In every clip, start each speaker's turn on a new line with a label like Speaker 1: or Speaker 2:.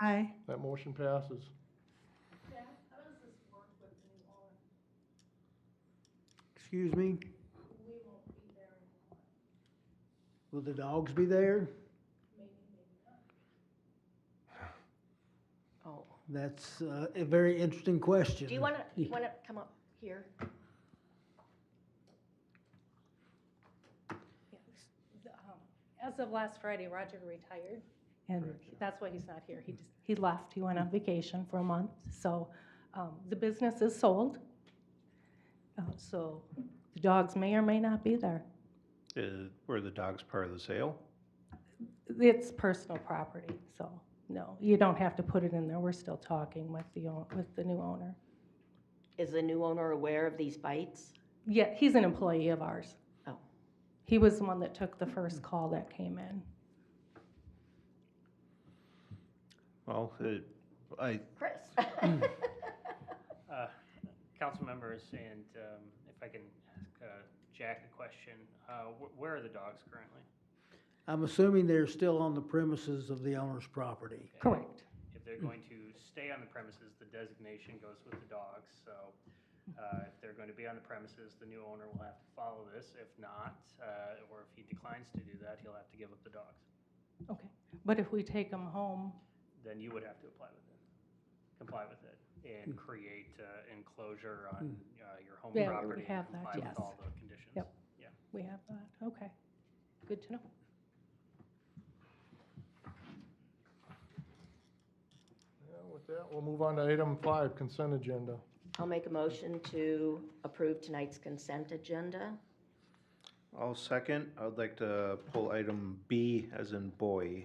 Speaker 1: Aye.
Speaker 2: That motion passes.
Speaker 3: Excuse me? Will the dogs be there?
Speaker 4: Oh.
Speaker 3: That's uh, a very interesting question.
Speaker 4: Do you want to, you want to come up here?
Speaker 5: Um, As of last Friday, Roger retired, and
Speaker 2: Correct, yeah.
Speaker 5: that's why he's not here. He just, he left, he went on vacation for a month, so um, the business is sold. Uh, So the dogs may or may not be there.
Speaker 6: Uh, Were the dogs part of the sale?
Speaker 5: It's personal property, so no, you don't have to put it in there. We're still talking with the, own- with the new owner.
Speaker 4: Is the new owner aware of these bites?
Speaker 5: Yeah, he's an employee of ours.
Speaker 4: Oh.
Speaker 5: He was the one that took the first call that came in.
Speaker 6: Well, it- I,
Speaker 4: Chris?
Speaker 7: Uh, Council members, and um, if I can ask uh, Jack a question, uh, wh- where are the dogs currently?
Speaker 3: I'm assuming they're still on the premises of the owner's property.
Speaker 7: And
Speaker 5: Correct.
Speaker 7: If they're going to stay on the premises, the designation goes with the dogs, so uh, if they're going to be on the premises, the new owner will have to follow this. If not, uh, or if he declines to do that, he'll have to give up the dogs.
Speaker 5: Okay. But if we take them home,
Speaker 7: Then you would have to apply with it, comply with it, and create uh, enclosure on uh, your home
Speaker 5: Yeah, we
Speaker 7: property. and
Speaker 5: have that,
Speaker 7: Comply
Speaker 5: yes.
Speaker 7: with all the conditions.
Speaker 5: Yep. We have that, okay. Good to know.
Speaker 2: Yeah, with that, we'll move on to item five, consent agenda.
Speaker 4: I'll make a motion to approve tonight's consent agenda.
Speaker 6: I'll second. I'd like to pull item B as in boy.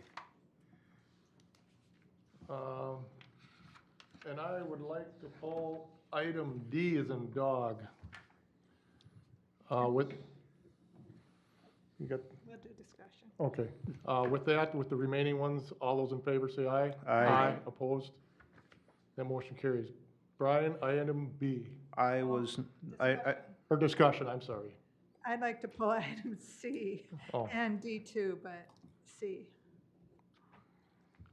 Speaker 2: Um, And I would like to pull item D as in dog. Uh, With, you got,
Speaker 1: We'll do discussion.
Speaker 2: okay. Uh, With that, with the remaining ones, all those in favor say aye.
Speaker 6: Aye.
Speaker 2: Opposed? That motion carries. Brian, item B,
Speaker 6: I was, I, I,
Speaker 2: or discussion, I'm sorry.
Speaker 1: I'd like to pull item C
Speaker 2: Oh.
Speaker 1: and D two, but C.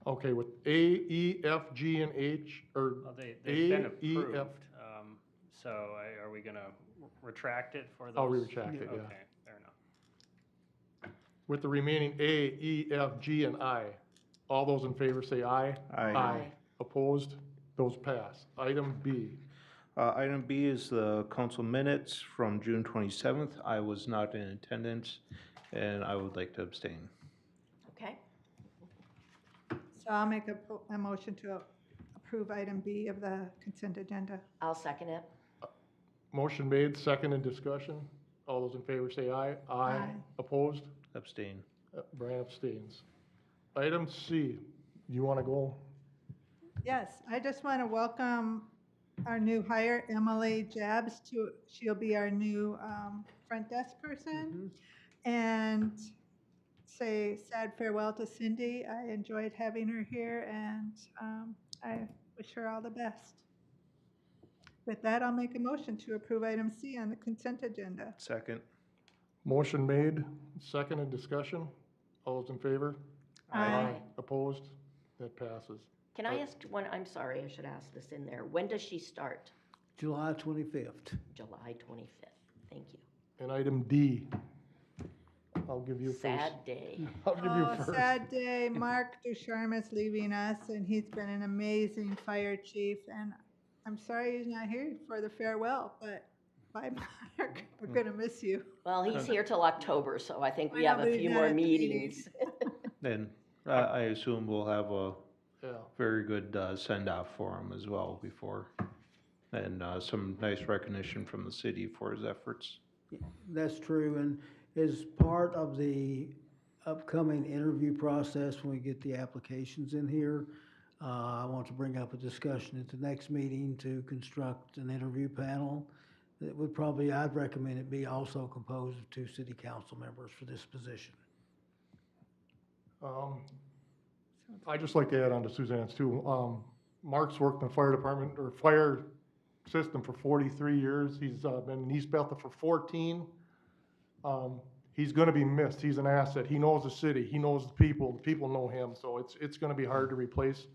Speaker 2: Okay, with A, E, F, G, and H, or
Speaker 7: Well, they, they've been
Speaker 2: A, E, F.
Speaker 7: approved, um, so I- are we gonna r- retract it for those?
Speaker 2: I'll retract it, yeah.
Speaker 7: Okay, fair enough.
Speaker 2: with the remaining A, E, F, G, and I. All those in favor say aye.
Speaker 6: Aye.
Speaker 4: Aye.
Speaker 2: Opposed? Those pass. Item B.
Speaker 6: uh, item B is the council minutes from June twenty-seventh. I was not in attendance and I would like to abstain.
Speaker 4: Okay,
Speaker 1: So I'll make a, po- a motion to approve item B of the consent agenda.
Speaker 4: I'll second it.
Speaker 2: Motion made, second in discussion. All those in favor say aye.
Speaker 1: Aye.
Speaker 2: Opposed?
Speaker 6: Abstain.
Speaker 2: Uh, Brand abstains. Item C. You want to go?
Speaker 1: Yes, I just want to welcome our new hire, Emily Jabs, to, she'll be our new um, front desk person. And say sad farewell to Cindy. I enjoyed having her here, and um, I wish her all the best. With that, I'll make a motion to approve item C on the consent agenda.
Speaker 6: Second.
Speaker 2: Motion made, second in discussion. All those in favor?
Speaker 1: Aye.
Speaker 2: Opposed? That passes.
Speaker 4: Can
Speaker 2: Oh.
Speaker 4: I ask one, I'm sorry, I should ask this in there. When does she start?
Speaker 3: July 25th.
Speaker 4: July 25th. Thank you.
Speaker 2: And item D. I'll give you first.
Speaker 4: Sad day.
Speaker 2: I'll give you
Speaker 1: Oh,
Speaker 2: first.
Speaker 1: sad day. Mark Ducharme is leaving us, and he's been an amazing fire chief. And I'm sorry he's not here for the farewell, but bye, Mark.
Speaker 2: Mm.
Speaker 1: We're gonna miss you.
Speaker 4: Well, he's here till October, so I think we
Speaker 1: Why
Speaker 4: have
Speaker 1: not
Speaker 4: a
Speaker 1: leave
Speaker 4: few
Speaker 1: that
Speaker 4: more
Speaker 1: at the meeting?
Speaker 4: meetings.
Speaker 6: And I, uh, I assume we'll have a
Speaker 2: Yeah.
Speaker 6: very good, uh, send off for him as well before. And, uh, some nice recognition from the city for his efforts.
Speaker 3: That's true, and as part of the upcoming interview process, when we get the applications in here, uh, I want to bring up a discussion at the next meeting to construct an interview panel. That would probably, I'd recommend it be also composed of two city council members for this position.
Speaker 2: Um, I'd just like to add on to Suzanne's too. Um, Mark's worked in the fire department or fire system for forty-three years. He's, uh, been in East Bethel for fourteen. Um, he's gonna be missed. He's an asset. He knows the city. He knows the people. The people know him. So it's, it's gonna be hard to replace